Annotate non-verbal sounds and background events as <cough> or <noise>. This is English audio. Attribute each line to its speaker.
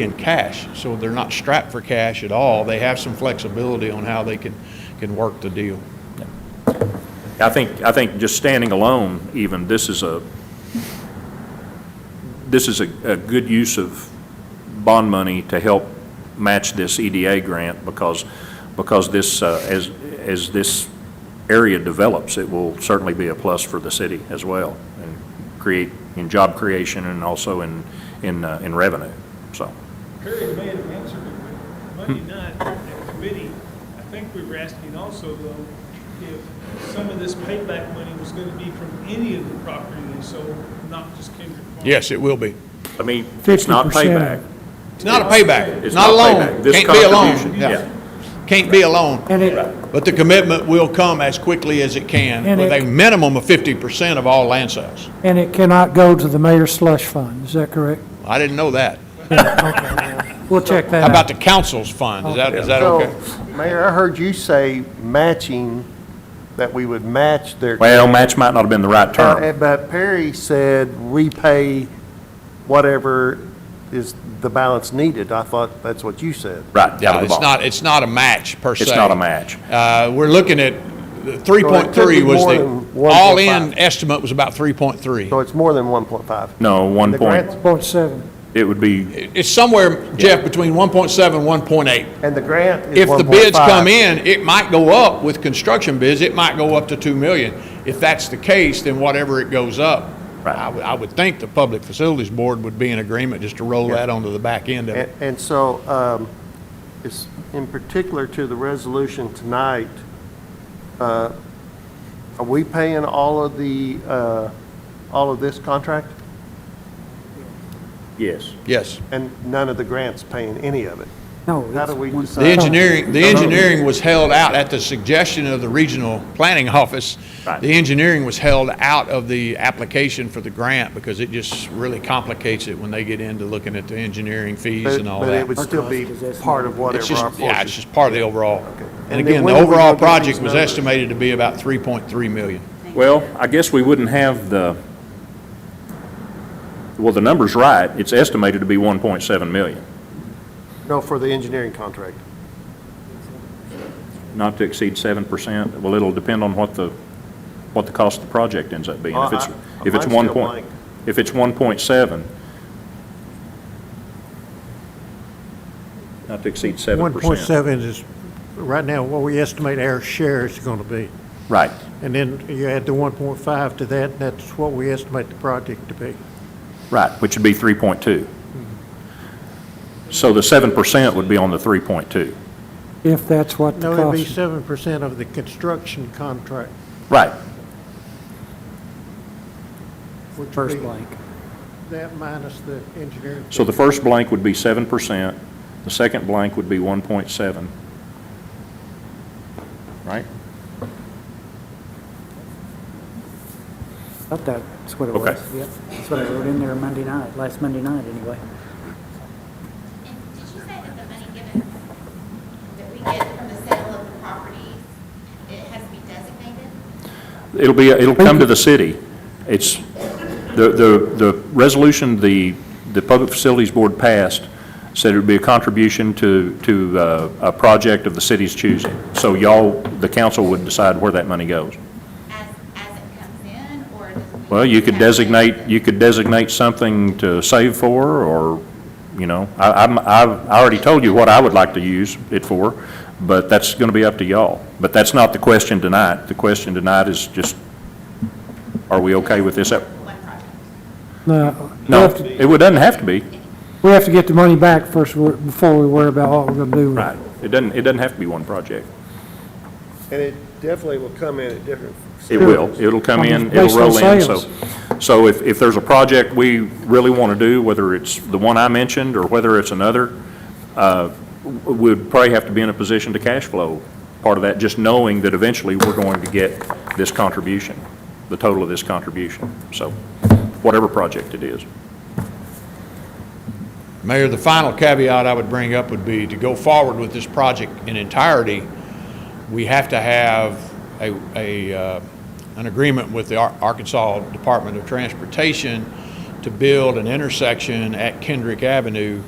Speaker 1: in cash, so they're not strapped for cash at all. They have some flexibility on how they can, can work the deal.
Speaker 2: I think, I think just standing alone even, this is a, this is a, a good use of bond money to help match this EDA grant because, because this, uh, as, as this area develops, it will certainly be a plus for the city as well and create, in job creation and also in, in, uh, in revenue, so.
Speaker 3: Perry may have answered it, but Monday night at committee, I think we were asking also though, if some of this payback money was gonna be from any of the property they sold, not just Kendrick Farm.
Speaker 1: Yes, it will be.
Speaker 2: I mean, it's not
Speaker 4: 50%.
Speaker 2: payback.
Speaker 1: It's not a payback,
Speaker 2: It's
Speaker 1: not a
Speaker 2: not
Speaker 1: loan.
Speaker 2: payback. This
Speaker 1: Can't be a loan.
Speaker 2: contribution, yeah.
Speaker 1: Can't be a loan.
Speaker 4: And it,
Speaker 1: But the commitment will come as quickly as it can,
Speaker 4: And
Speaker 1: with a
Speaker 4: it-
Speaker 1: minimum of 50% of all land sales.
Speaker 4: and it cannot go to the mayor's slush fund, is that <laughs> correct?
Speaker 1: I didn't know that.
Speaker 4: We'll check
Speaker 1: How
Speaker 4: that
Speaker 1: about
Speaker 4: out.
Speaker 1: the council's fund? Is that, is that
Speaker 5: So,
Speaker 1: okay?
Speaker 5: Mayor, I heard you say matching, that we would match their.
Speaker 2: Well, match might not have been the right term.
Speaker 5: Uh, But Perry said we pay whatever is the balance needed. I thought that's what you said.
Speaker 2: Right, out of the
Speaker 1: Uh, It's
Speaker 2: box.
Speaker 1: not, it's not a match, per se.
Speaker 2: It's not a match.
Speaker 1: Uh, we're looking at, the
Speaker 5: So it could
Speaker 1: 3.3
Speaker 5: be
Speaker 1: was
Speaker 5: more
Speaker 1: the,
Speaker 5: than 1.5.
Speaker 1: all-in estimate was about 3.3.
Speaker 5: So it's more than 1.5.
Speaker 2: No, one
Speaker 5: The
Speaker 2: point,
Speaker 5: grants-
Speaker 4: Point seven.
Speaker 2: it would be,
Speaker 1: It's somewhere, Jeff, between 1.7 and 1.8.
Speaker 5: And the grant is 1.5.
Speaker 1: If the bids come in, it might go up with construction bids, it might go up to 2 million. If that's the case, then whatever it goes up,
Speaker 2: Right.
Speaker 1: I would, I would think the Public Facilities Board would be in agreement just to roll that onto the back end of
Speaker 5: And
Speaker 1: it.
Speaker 5: and so, um, it's in particular to the resolution tonight, uh, are we paying all of the, uh, all of this contract?
Speaker 2: yes.
Speaker 1: Yes.
Speaker 5: And none of the grants paying any of it?
Speaker 4: No.
Speaker 5: How
Speaker 4: it's
Speaker 5: do we
Speaker 4: Oh, one
Speaker 5: decide?
Speaker 1: The
Speaker 4: side.
Speaker 1: engineering, the engineering was held out at the suggestion of the Regional Planning Office.
Speaker 2: Right.
Speaker 1: The engineering was held out of the application for the grant because it just really complicates it when they get into looking at the engineering fees
Speaker 5: But
Speaker 1: and all
Speaker 5: but
Speaker 1: that.
Speaker 5: it would still be part of
Speaker 1: It's
Speaker 5: whatever our
Speaker 1: just, yeah,
Speaker 5: portion
Speaker 1: it's just part of the overall. And
Speaker 5: And then
Speaker 1: again, the
Speaker 5: when are we
Speaker 1: overall
Speaker 5: gonna do these
Speaker 1: project was
Speaker 5: numbers?
Speaker 1: estimated to be about 3.3 million.
Speaker 2: Well, I guess we wouldn't have the, well, the number's right, it's estimated to be 1.7 million,
Speaker 5: No, for the engineering contract.
Speaker 2: not to exceed 7%. Well, it'll depend on what the, what the cost of the project ends up being. If it's,
Speaker 5: Well, I-
Speaker 2: if it's
Speaker 5: mine's
Speaker 2: 1
Speaker 5: still
Speaker 2: point,
Speaker 5: blank.
Speaker 2: if it's 1.7, not to exceed 7%.
Speaker 6: 1.7 is, right now, what we estimate our share is going to be.
Speaker 2: Right,
Speaker 6: And then you add the 1.5 to that, and that's what we estimate the project to be.
Speaker 2: right, which would be 3.2. So the 7% would be on the 3.2.
Speaker 4: If that's what the
Speaker 6: No, it'd be
Speaker 4: cost,
Speaker 6: 7% of the construction contract,
Speaker 2: Right,
Speaker 6: which would
Speaker 4: first
Speaker 6: be
Speaker 4: blank.
Speaker 6: that minus the engineering.
Speaker 2: So the first blank would be seven percent, the second blank would be one point seven. Right?
Speaker 4: Thought that's what it
Speaker 2: Okay.
Speaker 4: was. Yep, that's what I wrote in there Monday night, last Monday night, anyway.
Speaker 7: And did you say that the money given, that we get from the sale of the property, it has to be designated?
Speaker 2: It'll be, it'll come to the city. It's, the, the, the resolution the, the Public Facilities Board passed said it would be a contribution to, to uh, a project of the city's choosing. So y'all, the council would decide where that money goes.
Speaker 7: As, as it comes in, or does we?
Speaker 2: Well, you could
Speaker 7: have to-
Speaker 2: designate, you could designate something to save for, or, you know, I, I'm, I've, I already told you what I would like to use it for, but that's gonna be up to y'all. But that's not the question tonight. The question tonight is just, are we okay with this?
Speaker 7: One project.
Speaker 4: No, we
Speaker 2: No,
Speaker 4: have to,
Speaker 2: it would- doesn't have to be.
Speaker 4: we have to get the money back first, we're- before we worry about what we're gonna do. with it.
Speaker 2: It doesn't, it doesn't have to be one project.
Speaker 5: And it definitely will come in at different.
Speaker 2: It will. It'll come in, it'll
Speaker 4: Based on
Speaker 2: roll in, so.
Speaker 4: sales.
Speaker 2: So if, if there's a project we really want to do, whether it's the one I mentioned or whether it's another, uh, w- we'd probably have to be in a position to cash flow part of that, just knowing that eventually we're going to get this contribution, the total of this contribution. So whatever project it is.
Speaker 1: Mayor, the final caveat I would bring up would be to go forward with this project in entirety, we have to have a, a, uh, an agreement with the Ar- Arkansas Department of Transportation to build an intersection at Kendrick Avenue